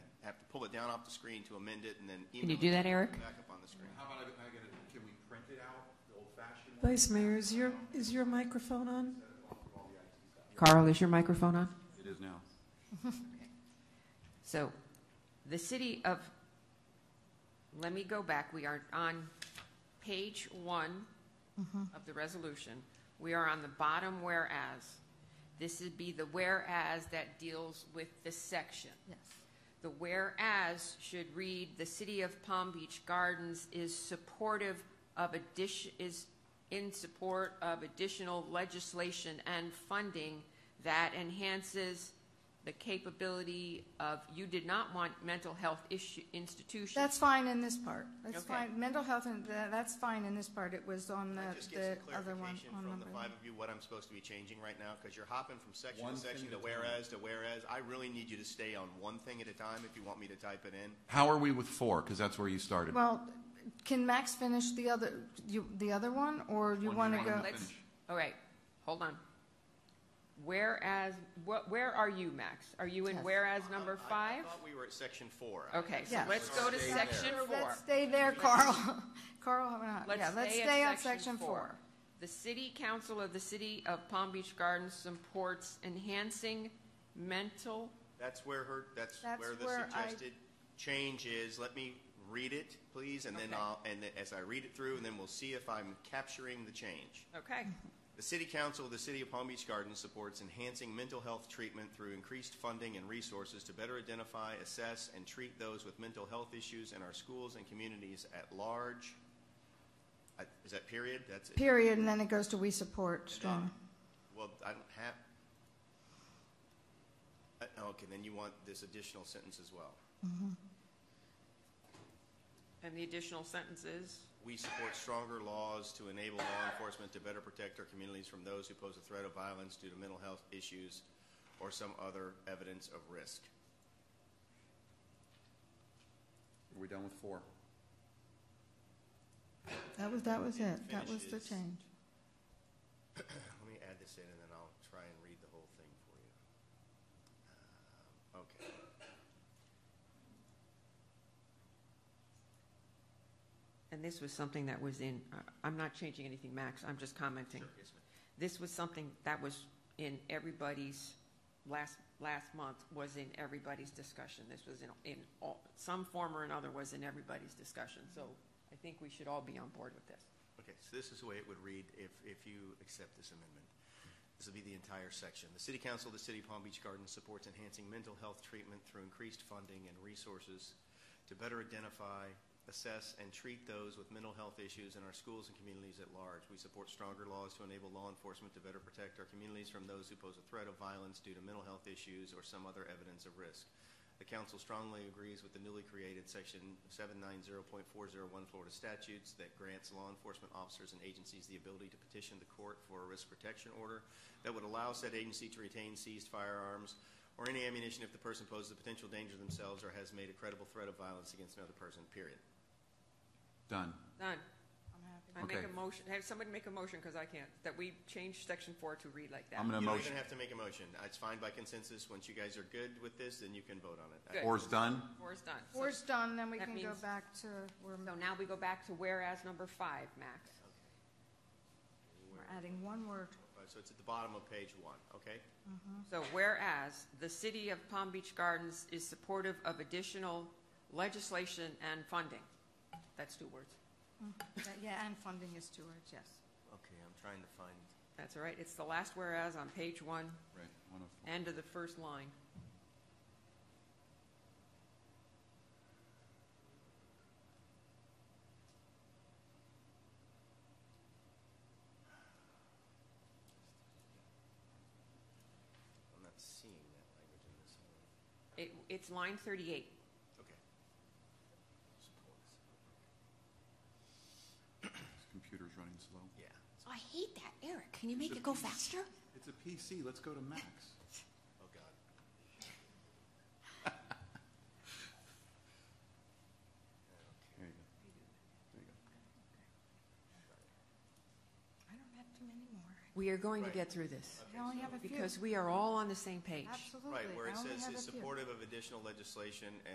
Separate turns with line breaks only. pull it down off the screen to amend it and then email
Can you
it
do that, Eric?
Back up on the screen.
How about I, I get it, can we print it out, the old fashioned one?
Vice Mayor, is your, is your microphone on?
Carl, is your microphone on?
It is now.
So, the city of, let me go back, we are on page one
Mm-hmm.
of the resolution. We are on the bottom whereas. This would be the whereas that deals with the section.
Yes.
The whereas should read, the city of Palm Beach Gardens is supportive of addition, is in support of additional legislation and funding that enhances the capability of, you did not want mental health issue, institutions.
That's fine in this part. That's
Okay.
fine. Mental health, and tha- that's fine in this part. It was on
Can I
the,
just
the
get some
other one.
clarification
on
from
number
the
one.
five of you, what I'm supposed to be changing right now? Because you're hopping from section
One
to
thing
section
at
to
a time.
whereas to whereas. I really need you to stay on one thing at a time if you want me to type it in.
How are we with four? Because that's where you started.
Well, can Max finish the other, you, the other one, or you
One
want to
more.
go?
Let's-
Let's,
finish.
all right, hold on. Whereas, wh- where are you, Max? Are you in
Yes.
whereas number
I-
five?
I thought we were at section four. I-
Okay, so
Yes.
let's go to
Uh, Stay there.
section
Let's-
four.
Let's stay there, Carl. Carl, why not?
Let's
Yeah, let's
stay at
stay on
section
section four.
four. The city council of the city of Palm Beach Gardens supports enhancing mental,
That's where her, that's
That's
where the
where I-
suggested change is. Let me read it, please, and then
Okay.
I'll, and then as I read it through, and then we'll see if I'm capturing the change.
okay,
The City Council of the City of Palm Beach Gardens supports enhancing mental health treatment through increased funding and resources to better identify, assess, and treat those with mental health issues in our schools and communities at large. I- Is that period? That's it.
Period, and then it goes to we support strong.
Well, I don't have, I- okay, then you want this additional sentence as well.
and the additional sentences.
We support stronger laws to enable law enforcement to better protect our communities from those who pose a threat of violence due to mental health issues or some other evidence of risk.
Are we done with four?
That was, that was it. That was the
Finishes.
change.
Let me add this in, and then I'll try and read the whole thing for you. Um, Okay.
And this was something that was in, uh, I'm not changing anything, Max, I'm just commenting. This was something that was in everybody's, last, last month was in everybody's discussion. This was in, in all, some form or another was in everybody's discussion. So I think we should all be on board with this.
Okay, so this is the way it would read if, if you accept this amendment. This will be the entire section. The City Council of the City of Palm Beach Gardens supports enhancing mental health treatment through increased funding and resources to better identify, assess, and treat those with mental health issues in our schools and communities at large. We support stronger laws to enable law enforcement to better protect our communities from those who pose a threat of violence due to mental health issues or some other evidence of risk. The council strongly agrees with the newly created section 790.401 Florida statutes that grants law enforcement officers and agencies the ability to petition the court for a risk protection order that would allow said agency to retain seized firearms or any ammunition if the person poses a potential danger to themselves or has made a credible threat of violence against another person, period.
Done.
Done. I make
Okay.
a motion, have somebody make a motion, because I can't, that we change section four to read like that.
I'm
You
going to
don't
motion.
even have to make a motion. It's fine by consensus. Once you guys are good with this, then you can vote on it.
Good.
Four's done.
Four's done. So-
Four's done, then we
That
can go
means-
back to, we're,
So now we go back to whereas number five, Max.
we're adding one word.
Uh, So it's at the bottom of page one, okay?
So whereas the city of Palm Beach Gardens is supportive of additional legislation and funding. That's two words.
Yeah, and funding is two words, yes.
Okay, I'm trying to find.
That's all right. It's the last whereas on page one,
Right. one of-
end of the first line.
I'm not seeing that language in this one.
It, it's line thirty-eight.
Okay. Supports.
This computer's running slow.
Yeah.
I hate that. Eric, can you make it go faster?
It's a PC. Let's go to Max.
Oh, God.
There you go. There you go.
I don't have too many more.
We are going to
Right.
get through this
I only have a few.
because we are all on the same page.
Absolutely.
Right, where
I
it
only
says
have
is
a few.
supportive of additional legislation